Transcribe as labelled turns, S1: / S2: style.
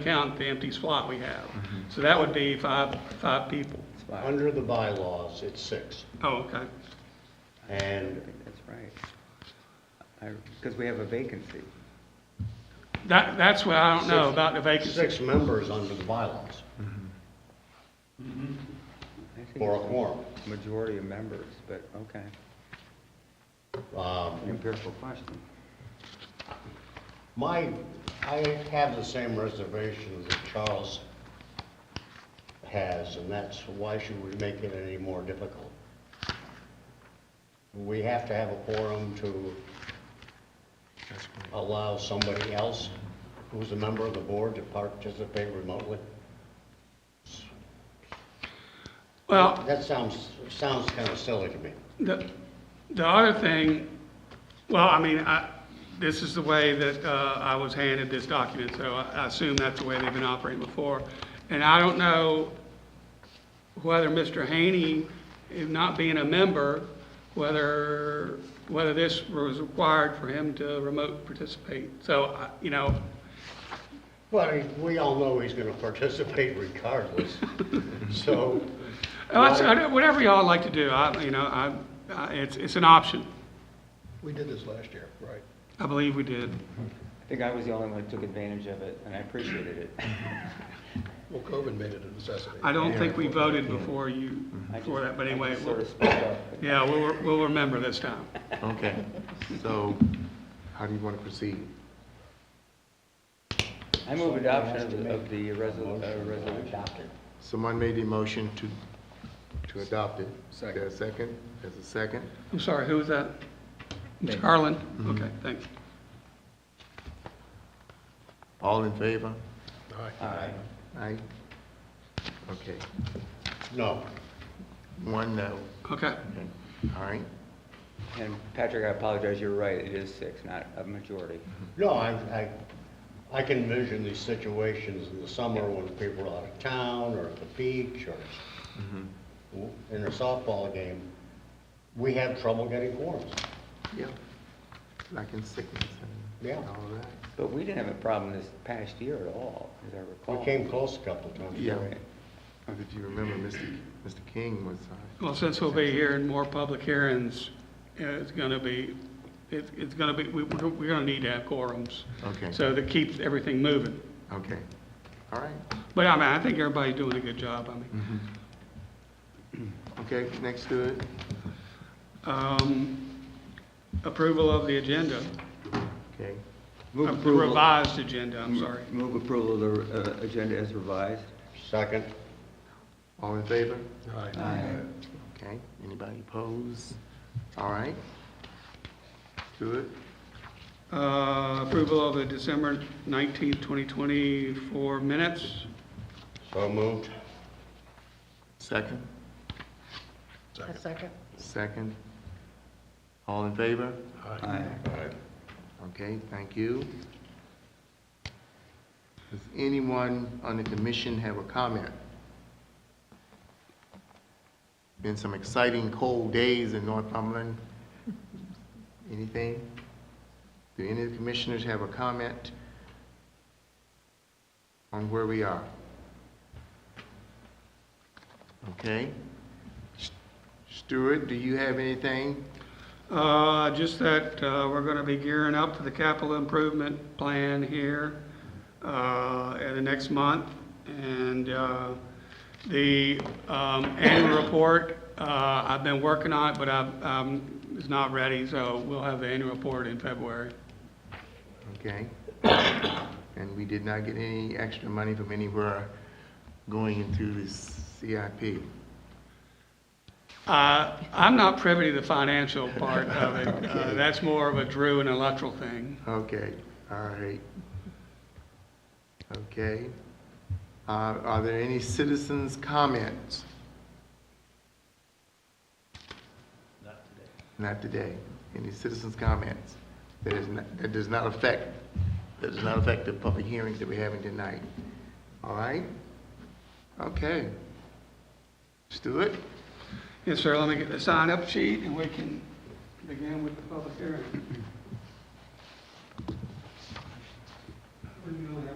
S1: count the empty slot we have. So that would be five, five people.
S2: Under the bylaws, it's six.
S1: Oh, okay.
S2: And
S3: I think that's right. I, because we have a vacancy.
S1: That, that's what I don't know
S2: Six-
S1: about the vacancy.
S2: six members under the bylaws
S3: I think
S2: for a
S3: it's
S2: quorum.
S3: Majority of members, but, okay,
S2: Um,
S3: empirical question.
S2: My, I have the same reservation that Charles has, and that's why should we make it any more difficult? We have to have a quorum to allow somebody else who's a member of the board to participate remotely.
S1: Well,
S2: That sounds, sounds kind of silly to me.
S1: the, the other thing, well, I mean, I, this is the way that, uh, I was handed this document, so I, I assume that's the way they've been operating before. And I don't know whether Mr. Haney, if not being a member, whether, whether this was required for him to remote participate. So, I- you know,
S2: Well, we all know he's going to participate regardless, so.
S1: Well, that's- I don't- Whatever y'all like to do, I, you know, I, I- it's, it's an option.
S2: We did this last year, right?
S1: I believe we did.
S3: I think I was the only one who took advantage of it, and I appreciated it.
S2: Well, COVID made it a necessity.
S1: I don't think we voted before you, before that, but anyway,
S3: Sort
S1: we'll-
S3: of spoke up.
S1: yeah, we'll, we'll remember this time.
S4: Okay, so how do you want to proceed?
S3: I move adoption of the- of the resol- uh, resolution.
S4: Someone made the motion to, to adopt it. Is there a second? There's a second?
S1: I'm sorry, who was that? Ms. Harlan?
S3: Mm-hmm.
S1: Okay, thanks.
S4: All in favor?
S3: Aye.
S4: Aye? Okay,
S2: No,
S4: one no.
S1: Okay,
S4: Okay. All right,
S3: And Patrick, I apologize, you're right, it is six, not a majority.
S2: no, I, I, I can envision these situations in the summer when people are out of town or at the beach or in a softball game. We have trouble getting quorums.
S4: yeah. Like in sickness and
S2: Yeah.
S4: all that.
S3: But we didn't have a problem this past year at all, as I recall.
S2: We came close a couple of times.
S4: Yeah.
S3: Right.
S4: Or Did you remember Mr. Mr. King was, uh,
S1: well, since we'll be here in more public hearings, uh, it's gonna be, it's, it's gonna be, we, we're we're gonna need to have quorums.
S4: Okay.
S1: So that keeps everything moving.
S4: uh, okay, all right.
S1: But I mean, I think everybody's doing a good job, I mean.
S4: Okay, next to it,
S3: Mm-hmm.
S1: Um, Approval of the agenda.
S4: okay.
S3: Move
S1: Of the
S3: approval-
S1: Revised agenda, I'm sorry.
S3: Move approval of the uh, agenda as revised.
S2: Second,
S4: All in favor?
S3: Aye.
S4: Okay, anybody oppose? All right. Do it.
S1: Uh, Approval of the December 19th, 2024 minutes.
S2: so moved.
S4: Second?
S5: A second.
S4: Second. All in favor?
S3: Aye.
S4: Okay, thank you. Does anyone on the commission have a comment? Been some exciting cold days in Northumberland. Anything? Do any of the commissioners have a comment on where we are? Okay. Stuart, do you have anything?
S1: Uh, Just that uh, we're going to be gearing up for the capital improvement plan here uh, at the next month. And uh, the um, annual report, uh, I've been working on it, but I've, um, it's not ready, so we'll have the annual report in February.
S4: Okay. And we did not get any extra money from anywhere going into the CIP.
S1: Uh, I'm not privy to the financial part of it. Uh, That's more of a Drew and electoral thing.
S4: Okay, all right. Okay. Uh, Are there any citizens' comments? Not today. Any citizens' comments? That is, not- that does not affect, that does not affect the public hearings that we're having tonight. All right? Okay. Stuart?
S1: Yes, sir, let me get the sign-up sheet, and we can begin with the public hearing. Where you going,